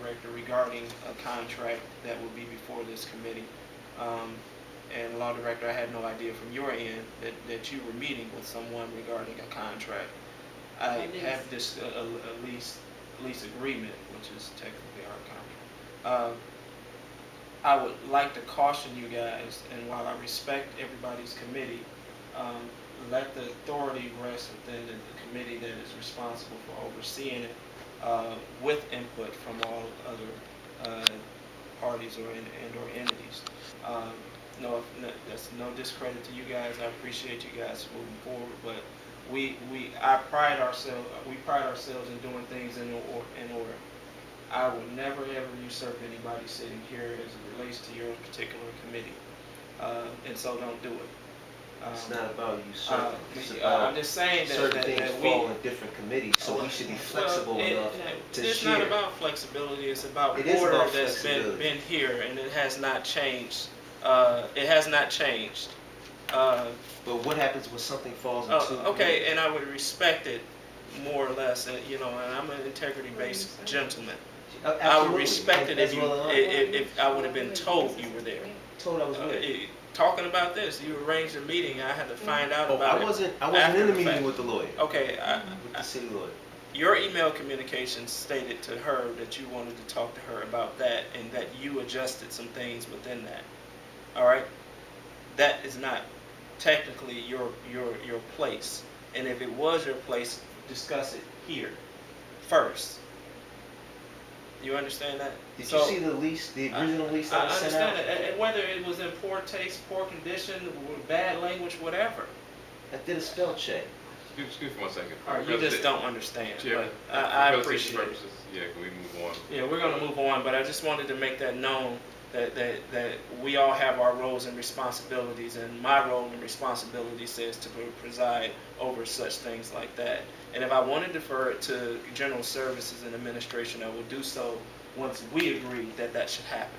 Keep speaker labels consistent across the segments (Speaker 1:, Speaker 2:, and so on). Speaker 1: director regarding a contract that will be before this committee. Um, and law director, I had no idea from your end that, that you were meeting with someone regarding a contract. I
Speaker 2: A lease.
Speaker 1: have this, a, a a lease, lease agreement, which is technically our contract. Um, I would like to caution you guys, and while I respect everybody's committee, um, let the authority rest within the the committee that is responsible for overseeing it, uh, with input from all other, uh, parties or, en- and or entities. Um, no, no- that's no discredit to you guys, I appreciate you guys moving forward, but we, we, I pride ourselves, we pride ourselves in doing things in or, in order. I will never ever usurp anybody sitting here as it relates to your particular committee, uh, and so don't do it. Um,
Speaker 3: It's not about you
Speaker 1: uh,
Speaker 3: serving, it's
Speaker 1: uh, I'm
Speaker 3: about
Speaker 1: just saying that,
Speaker 3: certain
Speaker 1: that,
Speaker 3: things
Speaker 1: that we.
Speaker 3: fall in different committees, so we should be flexible
Speaker 1: Well, it-
Speaker 3: enough
Speaker 1: it-
Speaker 3: to
Speaker 1: It's not
Speaker 3: share.
Speaker 1: about flexibility, it's about
Speaker 3: It is
Speaker 1: order
Speaker 3: about
Speaker 1: that's been,
Speaker 3: flexibility.
Speaker 1: been here, and it has not changed. Uh, it has not changed. Uh,
Speaker 3: But what happens when something falls into?
Speaker 1: Oh, okay, and I would respect it more or less, and, you know, and I'm an integrity-based gentleman. I would respect it if you, i- i- if I would have been told you were there.
Speaker 3: Told I was
Speaker 1: Uh,
Speaker 3: with.
Speaker 1: i- Talking about this, you arranged a meeting, I had to find out
Speaker 3: Oh,
Speaker 1: about
Speaker 3: I
Speaker 1: it.
Speaker 3: wasn't, I wasn't
Speaker 1: after
Speaker 3: in the
Speaker 1: the fact. Uh,
Speaker 3: meeting with the lawyer,
Speaker 1: Okay, I,
Speaker 3: with the city lawyer.
Speaker 1: Your email communication stated to her that you wanted to talk to her about that and that you adjusted some things within that. All right? That is not technically your your your place. And if it was your place, discuss it here first. You understand that?
Speaker 3: Did you
Speaker 1: So-
Speaker 3: see the lease, the
Speaker 1: I-
Speaker 3: original lease
Speaker 1: I
Speaker 3: that I sent
Speaker 1: understand
Speaker 3: out?
Speaker 1: that, and- and whether it was in poor taste, poor condition, or bad language, whatever.
Speaker 3: I did a spell check.
Speaker 4: Excuse, excuse me one second.
Speaker 1: Or you just don't understand,
Speaker 4: Chairman,
Speaker 1: but I, I
Speaker 4: for
Speaker 1: appreciate
Speaker 4: presentation
Speaker 1: it.
Speaker 4: purposes, Yeah, can we move on?
Speaker 1: Yeah, we're gonna move on, but I just wanted to make that known, that, that, that we all have our roles and responsibilities, and my role and responsibility says to preside over such things like that. And if I want to defer it to general services and administration, I will do so once we agree that that should happen.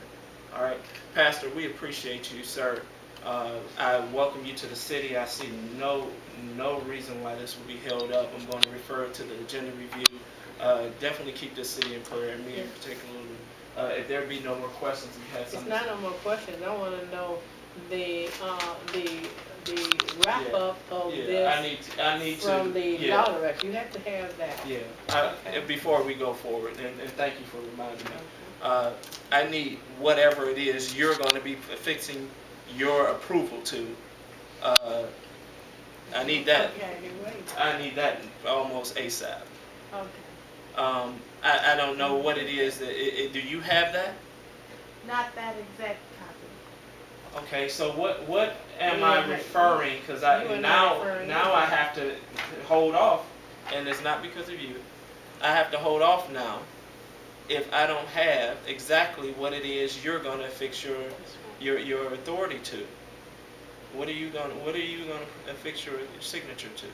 Speaker 1: All right, Pastor, we appreciate you, sir. Uh, I welcome you to the city. I see no, no reason why this will be held up. I'm going to refer it to the agenda review. Uh, definitely keep this city in prayer, and me in particular. Uh, if there be no more questions, you have
Speaker 2: It's
Speaker 1: something.
Speaker 2: not no more questions, I wanna know the, uh, the, the wrap-up of
Speaker 1: Yeah, I
Speaker 2: this
Speaker 1: need, to- I need to.
Speaker 2: from the
Speaker 1: yeah.
Speaker 2: law director, you have to have that.
Speaker 1: Yeah, I,
Speaker 2: Okay.
Speaker 1: before we go forward, and, and thank you for reminding me.
Speaker 2: Okay.
Speaker 1: uh, I need whatever it is you're going to be fixing your approval to. Uh, I need that.
Speaker 2: Okay, you're right.
Speaker 1: I need that almost ASAP.
Speaker 2: Okay.
Speaker 1: Um, I, I don't know what it is that, it, it, do you have that?
Speaker 5: Not that exact copy.
Speaker 1: Okay, so what, what am
Speaker 2: You
Speaker 1: I
Speaker 2: are-
Speaker 1: referring? Because
Speaker 2: you
Speaker 1: I,
Speaker 2: are not
Speaker 1: now,
Speaker 2: referring.
Speaker 1: now I have to hold off, and it's not because of you. I have to hold off now if I don't have exactly what it is you're gonna fix your, your, your authority to. What are you gonna, what are you gonna affix your signature to?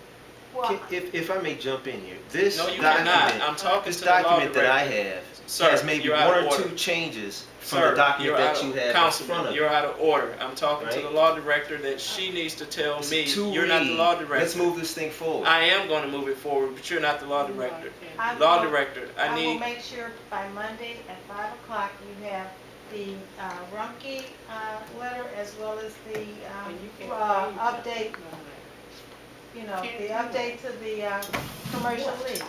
Speaker 5: Well,
Speaker 3: If, if I may jump in here, this
Speaker 1: No, you cannot.
Speaker 3: document,
Speaker 1: I'm talking
Speaker 3: this
Speaker 1: to the law
Speaker 3: document that I
Speaker 1: director.
Speaker 3: have
Speaker 1: Sir,
Speaker 3: has maybe
Speaker 1: you're out
Speaker 3: one
Speaker 1: of
Speaker 3: or
Speaker 1: order.
Speaker 3: two changes from
Speaker 1: Sir,
Speaker 3: the document
Speaker 1: you're out
Speaker 3: that
Speaker 1: of-
Speaker 3: you have in front
Speaker 1: Councilman,
Speaker 3: of.
Speaker 1: you're
Speaker 3: you.
Speaker 1: out of order. I'm talking to
Speaker 3: Right?
Speaker 1: the law director that she needs to tell
Speaker 3: It's
Speaker 1: me,
Speaker 3: to
Speaker 1: you're not the
Speaker 3: read.
Speaker 1: law director.
Speaker 3: Let's move this thing forward.
Speaker 1: I am gonna move it forward, but you're not the law director.
Speaker 2: Okay.
Speaker 5: I
Speaker 1: Law
Speaker 5: will-
Speaker 1: director, I
Speaker 5: I will
Speaker 1: need,
Speaker 5: make sure by Monday at five o'clock you have the uh, Rumpke uh, letter as well as the um,
Speaker 2: And you can't
Speaker 5: uh,
Speaker 2: leave.
Speaker 5: update, you know,
Speaker 2: Can't
Speaker 5: the
Speaker 2: do that.
Speaker 5: update to the uh, commercial lease.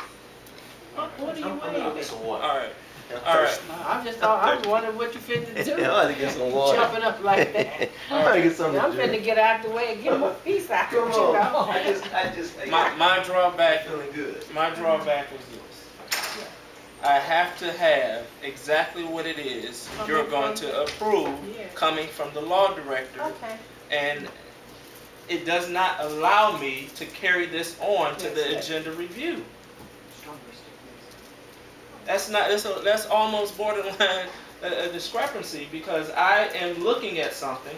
Speaker 2: What, what are
Speaker 3: I'm-
Speaker 2: you
Speaker 3: I'm gonna get
Speaker 2: waiting?
Speaker 3: some water.
Speaker 1: alright,
Speaker 3: I'm
Speaker 1: alright.
Speaker 3: thirsty.
Speaker 2: I'm just, I'm wondering what you finna
Speaker 3: I'm
Speaker 2: do,
Speaker 3: gonna get some water.
Speaker 2: jumping up like that.
Speaker 3: I'm gonna get something
Speaker 2: I'm
Speaker 3: to drink.
Speaker 2: finna get out the way and get my peace out, you
Speaker 3: Come on. I
Speaker 2: know?
Speaker 3: just, I just, I-
Speaker 1: My, my drawback,
Speaker 3: feeling good.
Speaker 1: my drawback was this. I have to have exactly what it is you're going to approve
Speaker 2: Yeah.
Speaker 1: coming from the law director.
Speaker 5: Okay,
Speaker 1: And it does not allow me to carry this on to the agenda review. That's not, that's, a- that's almost borderline a, a discrepancy because I am looking at something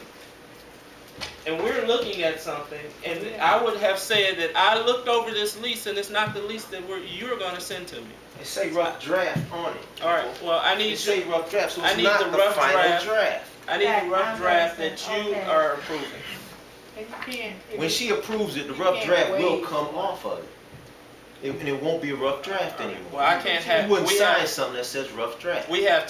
Speaker 1: and we're looking at something and I would have said that I looked over this lease and it's not the lease that we're, you're gonna send to me.
Speaker 3: It say rough draft on it.
Speaker 1: All right, well, I
Speaker 3: It
Speaker 1: need,
Speaker 3: say rough draft, so
Speaker 1: I
Speaker 3: it's
Speaker 1: need the
Speaker 3: not the
Speaker 1: rough
Speaker 3: final
Speaker 1: draft.
Speaker 3: draft.
Speaker 1: I need a rough draft that you
Speaker 5: Okay.
Speaker 1: are approving.
Speaker 2: And you can't-
Speaker 3: When she approves it, the
Speaker 2: You
Speaker 3: rough
Speaker 2: can't
Speaker 3: draft will
Speaker 2: wait.
Speaker 3: come off of it. It- And it won't be a rough draft anymore.
Speaker 1: Well, I can't have,
Speaker 3: You wouldn't
Speaker 1: we
Speaker 3: sign
Speaker 1: have,
Speaker 3: something that says rough draft.
Speaker 1: we have